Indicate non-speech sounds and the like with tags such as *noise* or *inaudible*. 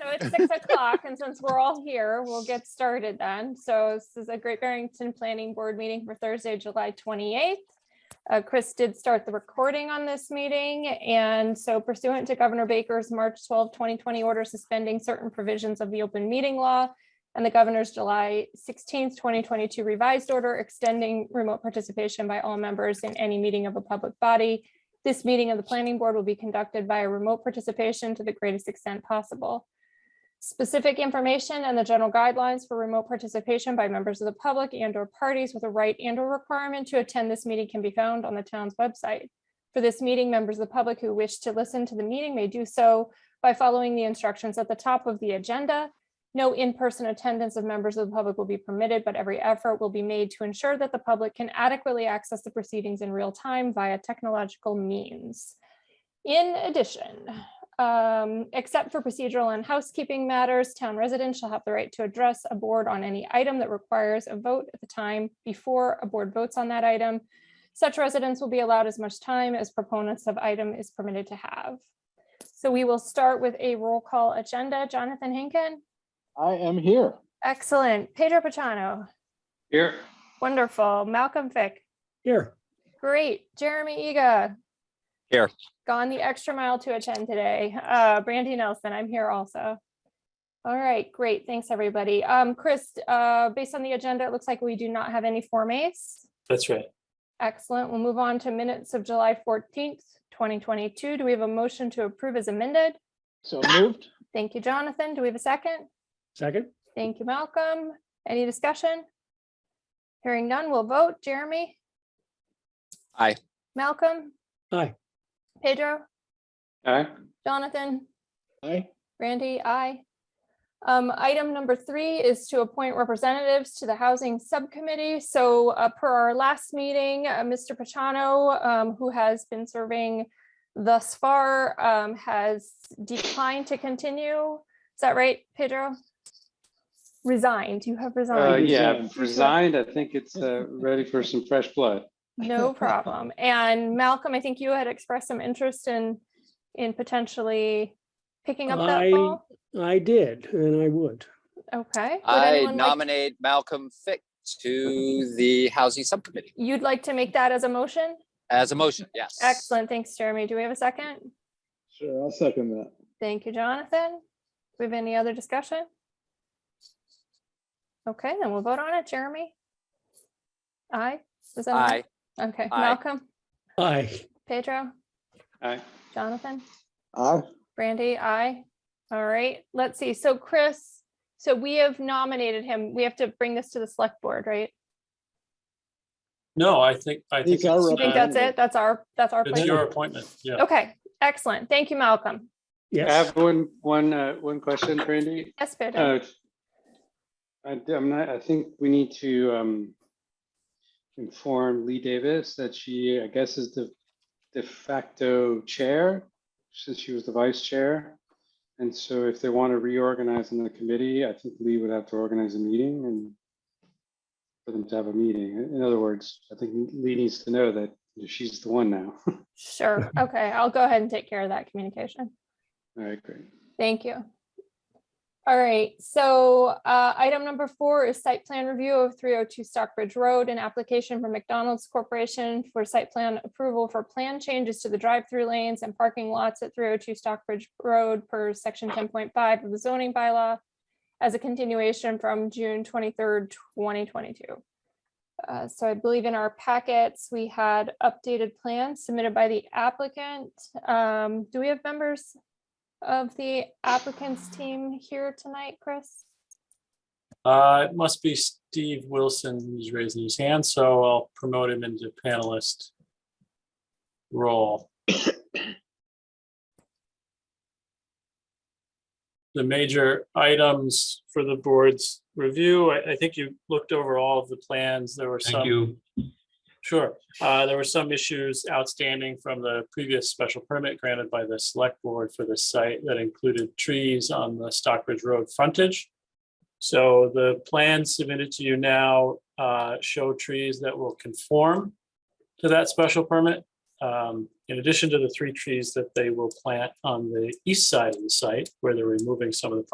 at six o'clock, and since we're all here, we'll get started then. So this is a Great Barrington Planning Board meeting for Thursday, July twenty-eighth. Uh, Chris did start the recording on this meeting, and so pursuant to Governor Baker's March 12, 2020 order suspending certain provisions of the open meeting law and the governor's July sixteenth, twenty twenty-two revised order extending remote participation by all members in any meeting of a public body this meeting of the planning board will be conducted via remote participation to the greatest extent possible. Specific information and the general guidelines for remote participation by members of the public and or parties with a right and or requirement to attend this meeting can be found on the town's website. For this meeting, members of the public who wish to listen to the meeting may do so by following the instructions at the top of the agenda. No in-person attendance of members of the public will be permitted, but every effort will be made to ensure that the public can adequately access the proceedings in real time via technological means. In addition, um, except for procedural and housekeeping matters, town residents shall have the right to address a board on any item that requires a vote at the time before a board votes on that item. Such residents will be allowed as much time as proponents of item is permitted to have. So we will start with a roll call agenda. Jonathan Hinkin? I am here. Excellent. Pedro Pachano. Here. Wonderful. Malcolm Fick. Here. Great. Jeremy Ega. Here. Gone the extra mile to attend today. Uh, Brandy Nelson, I'm here also. All right, great. Thanks, everybody. Um, Chris, uh, based on the agenda, it looks like we do not have any Form As. That's right. Excellent. We'll move on to minutes of July fourteenth, twenty twenty-two. Do we have a motion to approve as amended? So moved. Thank you, Jonathan. Do we have a second? Second? Thank you, Malcolm. Any discussion? Hearing none, we'll vote. Jeremy? Aye. Malcolm? Aye. Pedro? Aye. Jonathan? Aye. Randy, aye. Um, item number three is to appoint representatives to the Housing Subcommittee. So uh, per our last meeting, uh, Mr. Pachano, um, who has been serving thus far, um, has declined to continue. Is that right, Pedro? Resigned. You have Uh, resigned. yeah, I've resigned. I think it's, uh, ready for some fresh blood. No problem. And Malcolm, I think you had expressed some interest in, in potentially picking up that I- ball. I did, and I would. Okay. Would I anyone like- nominate Malcolm Fick to the Housing Subcommittee You'd like to make that as a motion? as a motion, yes. Excellent. Thanks, Jeremy. Do we have a second? Sure, I'll second that. Thank you, Jonathan. Do we have any other discussion? Okay, then we'll vote on it. Jeremy? Aye? Is that an Aye, Okay, Aye. Malcolm, Aye, Pedro, Aye. Jonathan, Aye. Brandy, aye. All right, let's see. So Chris, so we have nominated him. We have to bring this to the select board, right? No, I think, I think. These are You think it's, uh, that's it? That's our, that's our It's plan? your appointment, yeah. Okay, excellent. Thank you, Malcolm. I yes. have one, one, uh, one question, Brandy. Yes, Pedro. Uh, I, am not, I think we need to, um, inform Lee Davis that she, I guess, is the de facto chair, since she was the vice chair. And so if they want to reorganize in the committee, I think Lee would have to organize a meeting and for them to have a meeting. In- In other words, I think Lee needs to know that she's the one now. *laughs* All Sure. Okay, I'll go ahead and take care of that communication. right, great. Thank you. All right, so uh, item number four is site plan review of 302 Stockbridge Road, an application from McDonald's Corporation for site plan approval for plan changes to the drive-through lanes and parking lots at 302 Stockbridge Road per section 10.5 of the zoning bylaw as a continuation from June 23rd, 2022. Uh, So I believe in our packets, we had updated plans submitted by the applicant. Um, Do we have members of the applicants team here tonight, Chris? Uh, it must be Steve Wilson who's raising his hand, so I'll promote him into panelist role. *coughs* The major items for the board's review, I, I think you looked over all of the plans. There were some. Thank you. Sure. Uh, There were some issues outstanding from the previous special permit granted by the select board for this site that included trees on the Stockbridge Road frontage. So the plans submitted to you now uh, show trees that will conform to that special permit. um, In addition to the three trees that they will plant on the east side of the site where they're removing some of the